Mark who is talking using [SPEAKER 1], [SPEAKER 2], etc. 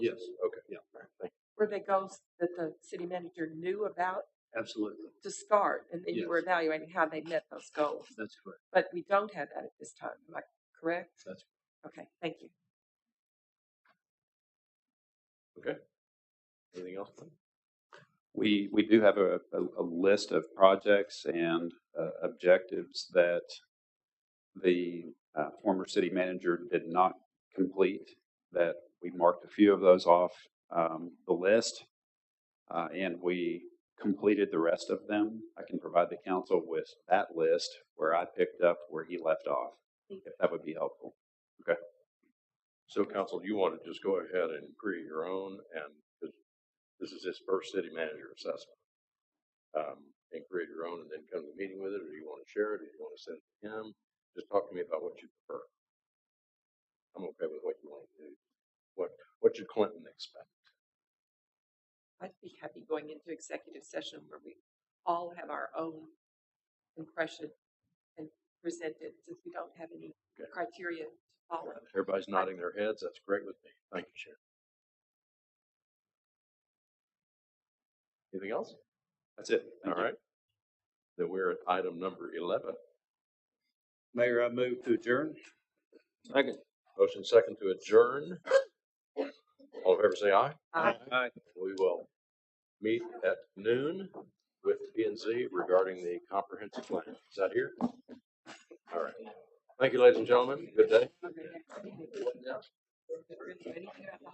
[SPEAKER 1] Yes, okay,
[SPEAKER 2] Were they goals that the city manager knew about
[SPEAKER 1] absolutely.
[SPEAKER 2] to start, and then you were
[SPEAKER 1] Yes.
[SPEAKER 2] evaluating how they met those goals?
[SPEAKER 1] That's correct.
[SPEAKER 2] But we don't have that at this time, am I correct?
[SPEAKER 1] That's
[SPEAKER 2] Okay, thank you.
[SPEAKER 3] Anything else? Mike?
[SPEAKER 4] We, we do have a, a, a list of projects and uh, objectives that the uh, former city manager did not complete, that we marked a few of those off um, the list, uh, and we completed the rest of them. I can provide the council with that list where I picked up where he left off, if that would be helpful.
[SPEAKER 3] So council, you want to just go ahead and create your own and this- this is his first city manager assessment. Um, and create your own and then come to the meeting with it, or you want to share it, or you want to send it to him? Just talk to me about what you prefer. I'm okay with what you want to do. What, what should Clinton expect?
[SPEAKER 2] I'd be happy going into executive session where we all have our own impression and present it, since we don't have any
[SPEAKER 3] Okay.
[SPEAKER 2] criteria to follow.
[SPEAKER 3] Everybody's nodding their heads. That's great with me. Thank you, Sharon. Anything else?
[SPEAKER 4] That's it.
[SPEAKER 3] All
[SPEAKER 4] Thank you.
[SPEAKER 3] right. Then we're at item number eleven.
[SPEAKER 1] Mayor, I move to adjourn.
[SPEAKER 3] Second. Motion second to adjourn. All in favor, say aye.
[SPEAKER 2] Uh,
[SPEAKER 3] We will meet at noon with P and Z regarding the comprehensive plan. Is that here? All right. Thank you, ladies and gentlemen. Good day.
[SPEAKER 2] for the next meeting. Is there anything about the